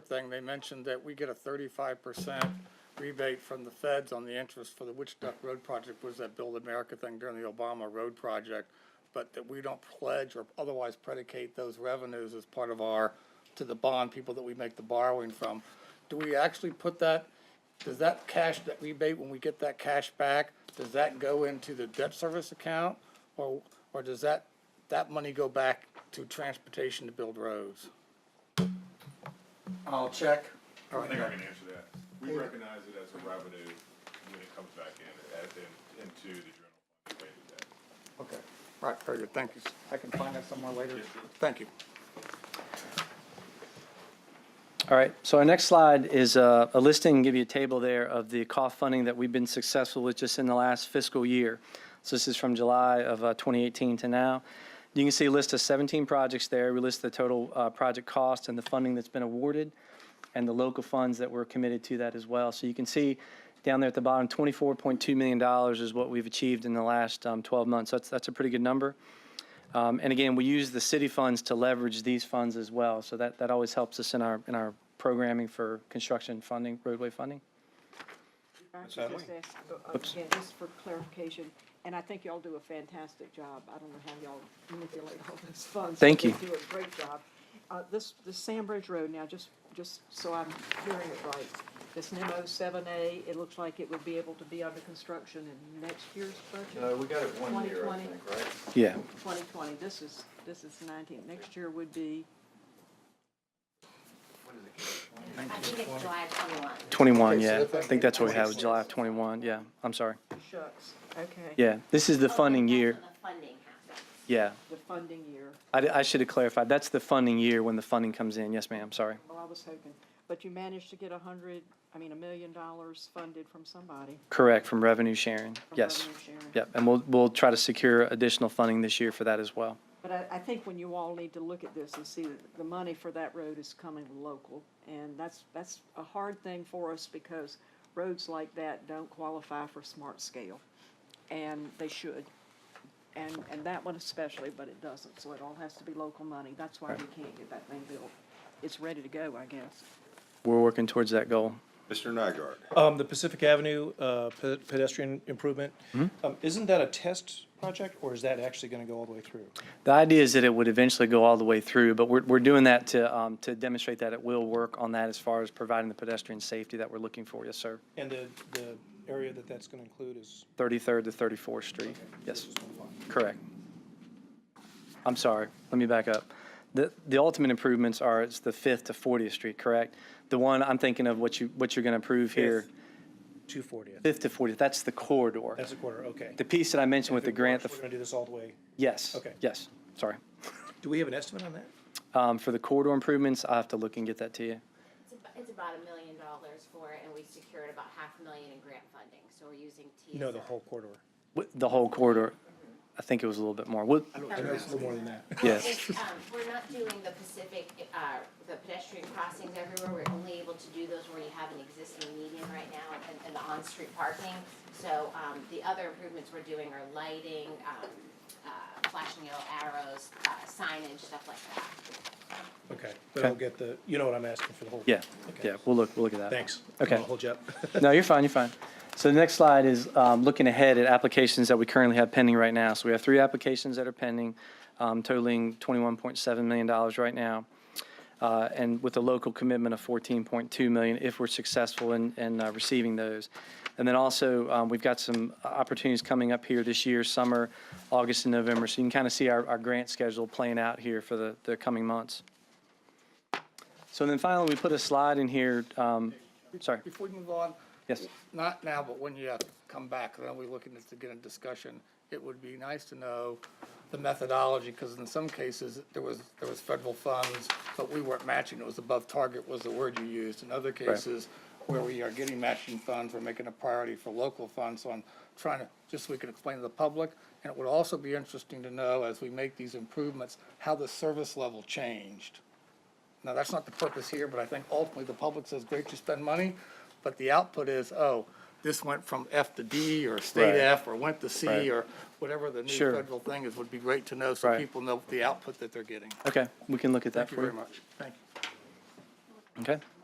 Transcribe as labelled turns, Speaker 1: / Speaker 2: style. Speaker 1: thing, they mentioned that we get a thirty-five percent rebate from the feds on the interest for the Witch Duck Road project, was that Build America thing during the Obama Road project, but that we don't pledge or otherwise predicate those revenues as part of our, to the bond people that we make the borrowing from. Do we actually put that, does that cash, that rebate, when we get that cash back, does that go into the debt service account? Or, or does that, that money go back to transportation to build roads?
Speaker 2: I'll check.
Speaker 3: I think I can answer that. We recognize it as a revenue when it comes back in, as in, into the general fund related debt.
Speaker 2: Okay,
Speaker 1: Right, very good, thank you.
Speaker 2: I can find that somewhere later.
Speaker 3: Yes, sir.
Speaker 2: Thank you.
Speaker 4: All right, so our next slide is uh, a listing, give you a table there of the cost funding that we've been successful with just in the last fiscal year. So this is from July of uh, 2018 to now. You can see a list of 17 projects there. We list the total uh, project cost and the funding that's been awarded and the local funds that were committed to that as well. So you can see down there at the bottom, $24.2 million is what we've achieved in the last um, 12 months. That's, that's a pretty good number. Um, And again, we use the city funds to leverage these funds as well, so that, that always helps us in our, in our programming for construction funding, roadway funding.
Speaker 5: I should just ask, uh, uh, again, just for clarification, and I think y'all do a fantastic job. I don't know how y'all manipulate all those funds. but
Speaker 4: Thank you.
Speaker 5: You do a great job. Uh, this, the Sandbridge Road now, just, just so I'm hearing it right, this NEMO seven A, it looks like it would be able to be under construction in next year's budget?
Speaker 6: No, we got it one year, I
Speaker 5: 2020.
Speaker 6: think, right?
Speaker 4: Yeah.
Speaker 5: Twenty twenty, this is, this is nineteen. Next year would be,
Speaker 7: I think it's July twenty-one.
Speaker 4: 21, yeah. I think that's what we have, July of 21, yeah. I'm sorry.
Speaker 5: shucks, okay.
Speaker 4: Yeah, this is the funding year,
Speaker 7: Oh, The funding happens.
Speaker 4: yeah.
Speaker 5: The funding year.
Speaker 4: I, I should have clarified, that's the funding year when the funding comes in. Yes, ma'am, sorry.
Speaker 5: Well, I was hoping, but you managed to get a hundred, I mean, a million dollars funded from somebody.
Speaker 4: Correct, from revenue sharing,
Speaker 5: from
Speaker 4: yes.
Speaker 5: revenue sharing.
Speaker 4: Yep, and we'll, we'll try to secure additional funding this year for that as well.
Speaker 5: But I, I think when you all need to look at this and see that the money for that road is coming local, and that's, that's a hard thing for us because roads like that don't qualify for smart scale, and they should. And, and that one especially, but it doesn't, so it all has to be local money. That's why we can't get that thing built. It's ready to go, I guess.
Speaker 4: We're working towards that goal.
Speaker 8: Mr. Nygaard,
Speaker 9: Um, the Pacific Avenue, uh, pe- pedestrian improvement,
Speaker 4: Hmm?
Speaker 9: um, isn't that a test project or is that actually gonna go all the way through?
Speaker 4: The idea is that it would eventually go all the way through, but we're, we're doing that to, um, to demonstrate that it will work on that as far as providing the pedestrian safety that we're looking for, yes, sir.
Speaker 9: And the, the area that that's gonna include is,
Speaker 4: Thirty-third to Thirty-fourth Street, yes, correct. I'm sorry, let me back up. The, the ultimate improvements are, it's the Fifth to Fortieth Street, correct? The one I'm thinking of, what you, what you're gonna approve here,
Speaker 9: two fortieth.
Speaker 4: Fifth to Fortieth, that's the corridor.
Speaker 9: That's a quarter, okay.
Speaker 4: The piece that I mentioned with the grant, the,
Speaker 9: We're
Speaker 4: f-
Speaker 9: gonna do this all the way.
Speaker 4: yes,
Speaker 9: Okay.
Speaker 4: yes, sorry.
Speaker 9: Do we have an estimate on that?
Speaker 4: Um, for the corridor improvements, I'll have to look and get that to you.
Speaker 7: It's ab- It's about a million dollars for it, and we secured about half a million in grant funding, so we're using TSA.
Speaker 9: No, the whole corridor.
Speaker 4: Wh- The whole corridor, I think it was a little bit more. What,
Speaker 9: I know it's a little more than that.
Speaker 4: yes,
Speaker 7: It's, um, we're not doing the Pacific, uh, the pedestrian crossings everywhere, we're only able to do those where you have an existing median right now and, and the on-street parking. So, um, the other improvements we're doing are lighting, um, uh, flashing yellow arrows, uh, signage, stuff like that.
Speaker 9: Okay, but I'll
Speaker 4: Okay.
Speaker 9: get the, you know what I'm asking for the whole.
Speaker 4: yeah,
Speaker 9: Okay.
Speaker 4: yeah, we'll look, we'll look at that.
Speaker 9: Thanks.
Speaker 4: Okay.
Speaker 9: I'll hold you up.
Speaker 4: No, you're fine, you're fine. So the next slide is um, looking ahead at applications that we currently have pending right now. So we have three applications that are pending, um, totaling $21.7 million right now, uh, and with a local commitment of $14.2 million if we're successful in, in uh, receiving those. And then also, um, we've got some opportunities coming up here this year, summer, August and November. So you can kind of see our, our grant schedule playing out here for the, the coming months. So then finally, we put a slide in here, um, sorry,
Speaker 1: Before we move on,
Speaker 4: yes.
Speaker 1: not now, but when you come back, then we're looking to get a discussion. It would be nice to know the methodology, because in some cases, there was, there was federal funds, but we weren't matching, it was above target was the word you used. In other cases, where we are getting matching funds, we're making a priority for local funds, so I'm trying to, just so we can explain to the public. And it would also be interesting to know, as we make these improvements, how the service level changed. Now, that's not the purpose here, but I think ultimately the public says, great, you spend money, but the output is, oh, this went from F to D or state
Speaker 4: Right.
Speaker 1: F or went to C
Speaker 4: Right.
Speaker 1: or whatever the new
Speaker 4: Sure.
Speaker 1: federal thing is, would be great to know so
Speaker 4: Right.
Speaker 1: people know the output that they're getting.
Speaker 4: Okay, we can look at that
Speaker 1: Thank you
Speaker 4: for
Speaker 1: very
Speaker 4: you.
Speaker 1: much. Thank you.
Speaker 4: Okay.